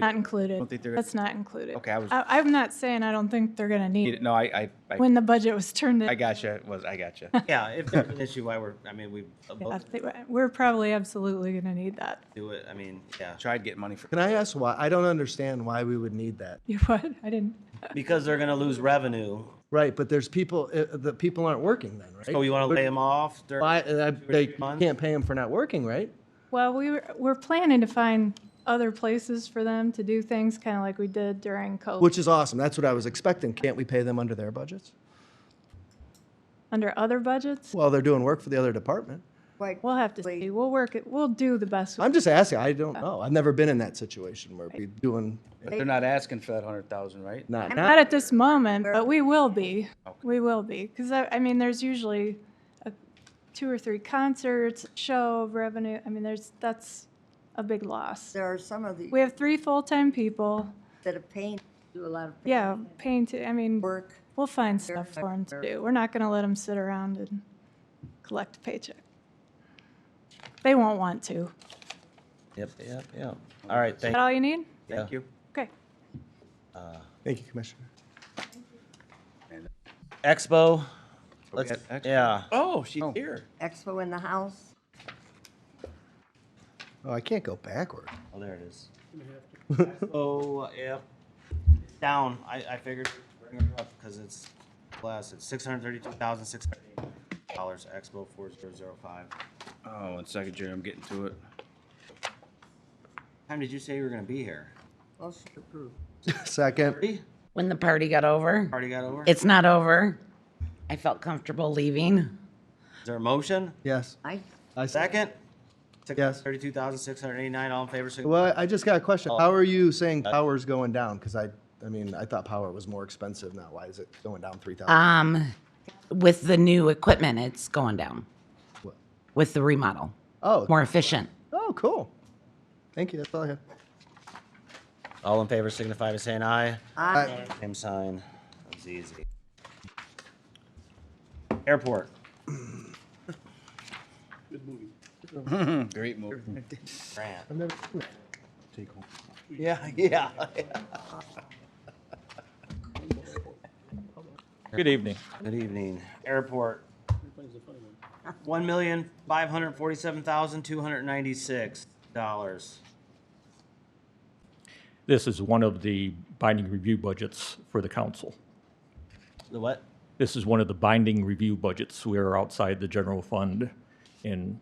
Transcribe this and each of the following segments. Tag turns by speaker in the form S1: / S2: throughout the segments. S1: Not included.
S2: Don't think they're gonna-
S1: That's not included.
S2: Okay, I was-
S1: I, I'm not saying I don't think they're gonna need it.
S2: No, I, I, I,
S1: When the budget was turned in,
S2: I gotcha, it was, I gotcha.
S3: Yeah, if there's an issue, why we're, I mean, we
S1: yeah,
S3: both
S1: they- we're probably absolutely gonna need that.
S3: do it, I mean, yeah.
S2: Tried getting money for,
S4: Can I ask why? I don't understand why we would need that.
S1: You what? I didn't.
S3: Because they're gonna lose revenue,
S4: Right, but there's people, uh, the people aren't working then, right?
S3: so Oh, you wanna lay them off during.
S4: Why, uh, they
S3: three months?
S4: can't pay them for not working, right?
S1: Well, we were, we're planning to find other places for them to do things, kind of like we did during COVID,
S4: Which is awesome. That's what I was expecting. Can't we pay them under their budgets?
S1: under other budgets.
S4: Well, they're doing work for the other department.
S5: Like,
S1: We'll have to see. We'll work it. We'll do the best. we
S4: I'm just asking. I don't know. I've never been in that situation where we're doing, eh,
S2: but they're not asking for that hundred thousand, right?
S4: not,
S1: Not
S4: not,
S1: at this moment, but we will be. We will be, because I, I mean, there's usually a- two or three concerts, show of revenue. I mean, there's, that's a big loss.
S5: there are some of
S1: We
S5: the,
S1: have three full-time people,
S5: that have paint, do a lot of paint
S1: yeah, paying to, I mean,
S5: work.
S1: we'll find stuff for them to do. We're not gonna let them sit around and collect a paycheck. They won't want to. Is
S3: Yep, yep, yep. All right, thank,
S1: that all you need?
S3: thank you.
S1: Okay.
S4: thank you, Commissioner.
S3: Expo, let's,
S2: got Expo.
S3: yeah.
S2: Oh, she's here.
S5: Expo in the house.
S4: Oh, I can't go backward.
S3: Oh, there it is. Oh, yep. Down, I, I figured, bring her up, because it's less, it's six hundred thirty-two thousand, six hundred eighty dollars, Expo four zero zero five.
S2: Oh, one second, Jerry, I'm getting to it.
S3: Time did you say you were gonna be here?
S5: Motion approved.
S4: Second,
S3: Thirty?
S6: when the party got over.
S3: Already got over? Is
S6: It's not over. I felt comfortable leaving.
S3: there a motion?
S4: yes.
S5: I,
S4: I s-
S3: Second?
S4: Yes.
S3: Thirty-two thousand, six hundred eighty-nine, all in favor, signify
S4: Well, I just got a
S3: Oh.
S4: question. How are you saying power's going down? Because I, I mean, I thought power was more expensive now. Why is it going down three thousand?
S6: Um, with the new equipment, it's going down with the remodel.
S4: Oh,
S6: More efficient.
S4: oh, cool. Thank you. That's all I have.
S3: All in favor signify by saying aye.
S5: I,
S3: Same sign. That's easy. Airport.
S2: Great move.
S3: Grant.
S4: I've never seen that.
S3: Yeah, yeah.
S7: Good evening.
S3: Good evening. Airport. One million, five hundred forty-seven thousand, two hundred ninety-six dollars.
S7: This is one of the binding review budgets for the council.
S3: The what?
S7: This is one of the binding review budgets. We are outside the general fund, and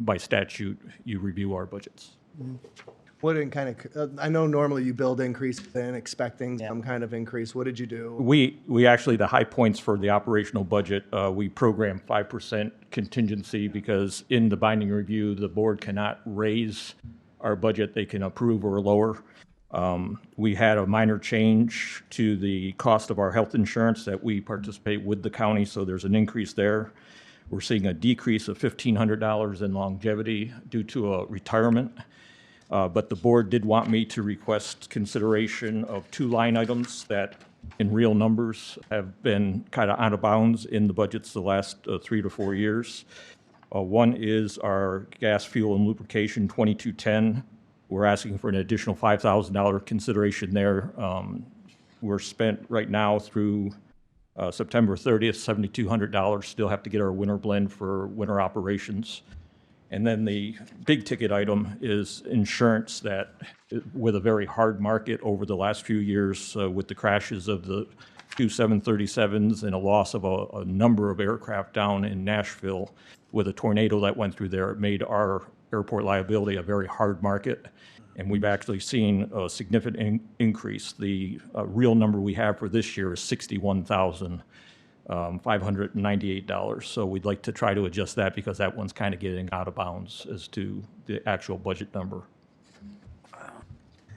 S7: by statute, you review our budgets.
S4: What in kind of, uh, I know normally you build increases in expecting some kind of increase. What did you do?
S7: We, we actually, the high points for the operational budget, uh, we program 5% contingency because in the binding review, the board cannot raise our budget, they can approve or lower. Um, We had a minor change to the cost of our health insurance that we participate with the county, so there's an increase there. We're seeing a decrease of $1,500 in longevity due to a retirement. Uh, But the board did want me to request consideration of two line items that, in real numbers, have been kind of out of bounds in the budgets the last uh, three to four years. Uh, One is our gas, fuel, and lubrication, 2210. We're asking for an additional $5,000 consideration there. Um, We're spent right now through uh, September 30th, $7,200. Still have to get our winter blend for winter operations. And then the big ticket item is insurance that, uh, with a very hard market over the last few years, uh, with the crashes of the two 737s and a loss of a, a number of aircraft down in Nashville with a tornado that went through there, it made our airport liability a very hard market. And we've actually seen a significant in- increase. The uh, real number we have for this year is 61,000 um, $598. So we'd like to try to adjust that because that one's kind of getting out of bounds as to the actual budget number.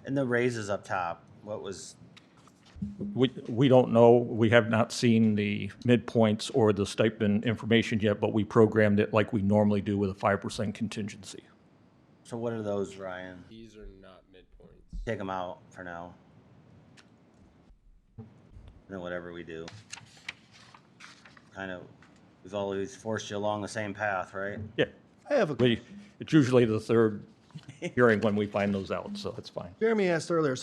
S3: And the raises up top. What was,
S7: We, we don't know, we have not seen the midpoints or the stipend information yet, but we programmed it like we normally do with a 5% contingency.
S3: so what are those, Ryan?
S8: These are not midpoints.
S3: Take them out for now. And then whatever we do. Kind of, we've always forced you along the same path, right?
S7: Yeah,
S4: I have a,
S7: we, it's usually the third
S9: hearing when we find those out, so that's fine.
S7: Jeremy asked earlier,